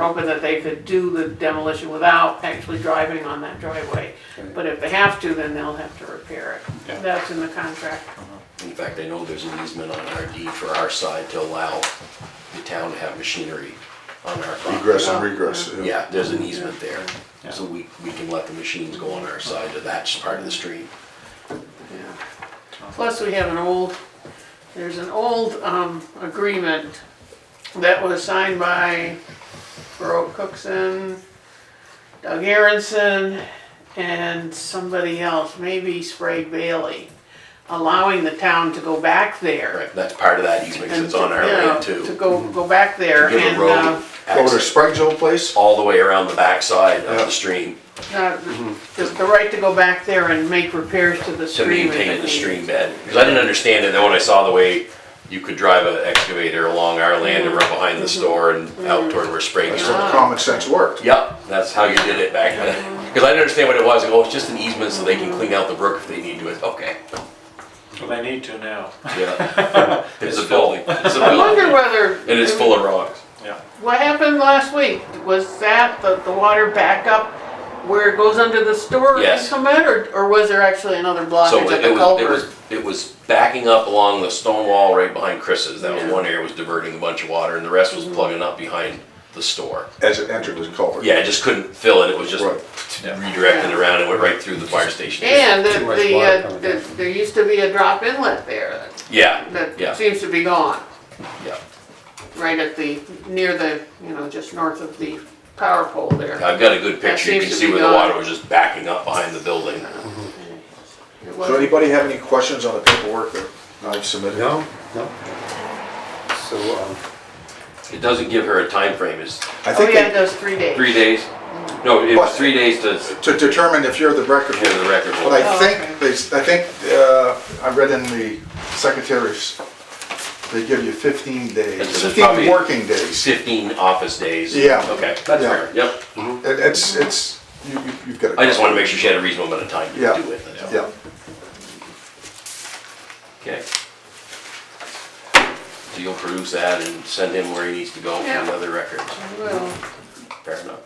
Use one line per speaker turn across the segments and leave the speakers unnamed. hoping that they could do the demolition without actually driving on that driveway. But if they have to, then they'll have to repair
Yeah.
it. That's in the contract.
In fact, I know there's an easement on our deed for our side to allow the town to have machinery on our property.
Egress and regress.
Yeah, there's an easement there, so we, we can let the machines go on our side to that part of the street.
Yeah. Plus, we have an old, there's an old, um, agreement that was signed by Baroque Cookson, Doug Aronson, and somebody else, maybe Sprague Bailey, allowing the town to go back there.
Right, that's part of that easement, 'cause it's on our
and, you know,
land too.
To
To
go, go back there
Give
and, uh,
a road
Over to
access
Sprague's old place?
all the way around the backside of
Yeah.
the stream
uh, the, the right to go back there and make repairs to the
to
stream. if
maintain the
needed.
stream bed. Cause I didn't understand it, then when I saw the way you could drive an excavator along our land and run behind the
Mm-hmm.
store and out toward where Sprague's.
That's what common sense worked.
Yep, that's how you did it back then. Because I didn't understand what it was. Oh, it's just an easement so they can clean out the brook if they need to. It's okay.
Well, they need to now,
Yeah. It's a building. It's a
I wonder
building.
whether.
It is full of rocks.
yeah.
What happened last week? Was that the, the water back up where it goes under the store and
Yes.
come in, or, or was there actually another
So
blockage at
it
the
it was, it was,
culvert?
it was backing up along the stone wall right behind Chris's. That
Yeah. Mm-hmm.
was one area was diverting a bunch of water and the rest was plugging up behind the store.
As it entered the culvert.
Yeah, it just couldn't fill it. It was just
Right.
redirecting around and went right through the fire station.
And the,
Too much water
the, uh,
coming
the,
down.
there used to be a drop inlet there
Yeah,
that,
Yeah.
that seems to be gone,
yeah.
right at the, near the, you know, just north of the power pole there.
I've got a good
That
picture. You
seems
can
to
see
be
where the
gone.
water was just backing up behind the building.
It
So
wasn't-
anybody have any questions on the paperwork that I've submitted?
No, no. So, um,
It doesn't give her a time frame. It's
I
Oh,
think
yeah, it
they-
does three days.
Three days? No, it was
But-
three days to,
to determine if you're the record
to the
holder.
record.
But
Oh,
I
okay.
think, they s- I think, uh, I read in the secretaries, they give you fifteen
And so
days,
there's
fifteen
probably-
working days.
Fifteen office days.
Yeah.
Okay, that's
Yeah.
fair, yep. Mm-hmm.
It- It's, it's, you, you- you've got to.
I just wanted to make sure she had a reasonable amount of time
Yeah.
to do it. that's all.
Yeah,
Okay. So you'll produce that and send him where he needs to go for
Yeah.
another record.
Well.
Fair enough.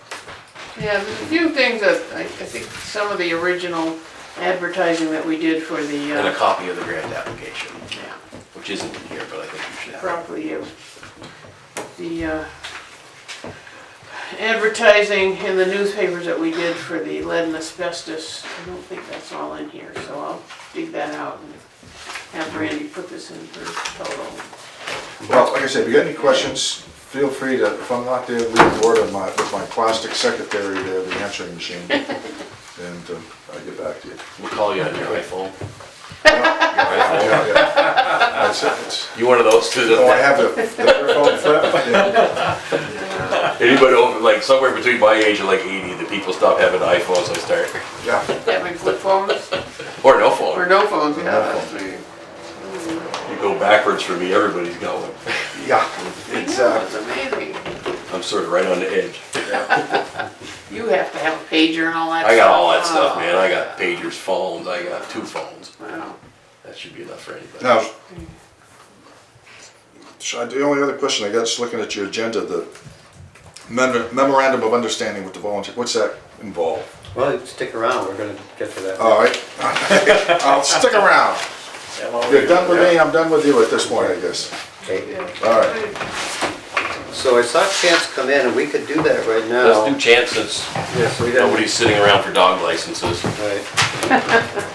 Yeah, there's a few things that, I, I think some of the original advertising that we did for the,
And a
uh,
copy of the grant application,
yeah,
which isn't in here, but I think you should have. it.
probably you. The, uh, advertising in the newspapers that we did for the lead and asbestos, I don't think that's all in here, so I'll dig that out and have Randy put this in for total.
well, like I said, if you got any questions, feel free to, if I'm not there, leave a word on my, with my plastic secretary there, the answering machine. And um, I'll get back to you.
We'll call you on your iPhone.
Yeah, yeah. That's it. It's-
You one of those two
Oh, I
that,
have the, the phone flip, yeah.
anybody over, like somewhere between my age and like eighty, the people stop having iPhones, I start,
yeah.
Having flip phones
or no phone.
or no phones, yeah,
no
that's me.
You go backwards for me, everybody's got one.
Yeah, it's, uh,
That's amazing.
I'm sort of right on the edge.
You have to have a pager and all that stuff.
I got all that stuff,
Oh.
man. I got pagers, phones, I got two phones.
Wow.
That should be enough for anybody.
now. sh- I- The only other question I got, just looking at your agenda, the memor- memorandum of understanding with the volunteer, what's that involve?
well, you stick around, we're gonna get to that.
All right, I'll stick around. You're done with me, I'm done with you at this point, I guess.
Okay.
All right,
So I saw Chance come in, and we could do that right now.
Let's do chance since
Yes, we got.
nobody's sitting around for dog licenses.
Right.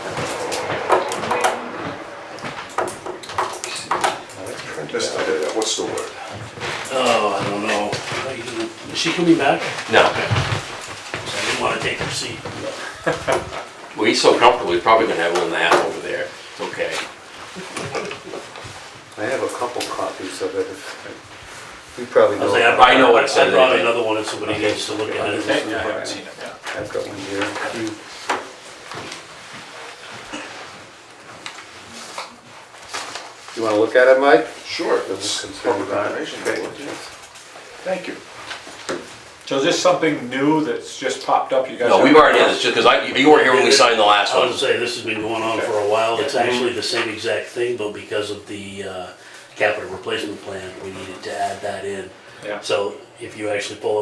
Just, uh, what's the word?
Oh, I don't know. Is she coming back?
No,
I didn't want to take her seat.
well, he's so comfortable, he's probably gonna have one and a half over there. It's okay.
I have a couple copies of it. if- You probably
I
know.
was like,
I know what it
I-
says
I brought
anyway.
another one if somebody needs to look at it.
I've got one here. You- You wanna look at it, Mike?
Sure.
That was
It's
concerned
public
about it.
information. Thank you.
So is this something new that's just popped up? You guys?
No, we've
haven't-
already had this, just because I, you weren't here when we signed the last
I
one.
was gonna say, this has been going on for a while. It's actually the same exact thing, but because of the uh, capital replacement plan, we needed to add that in.
Yeah.
So if you actually pull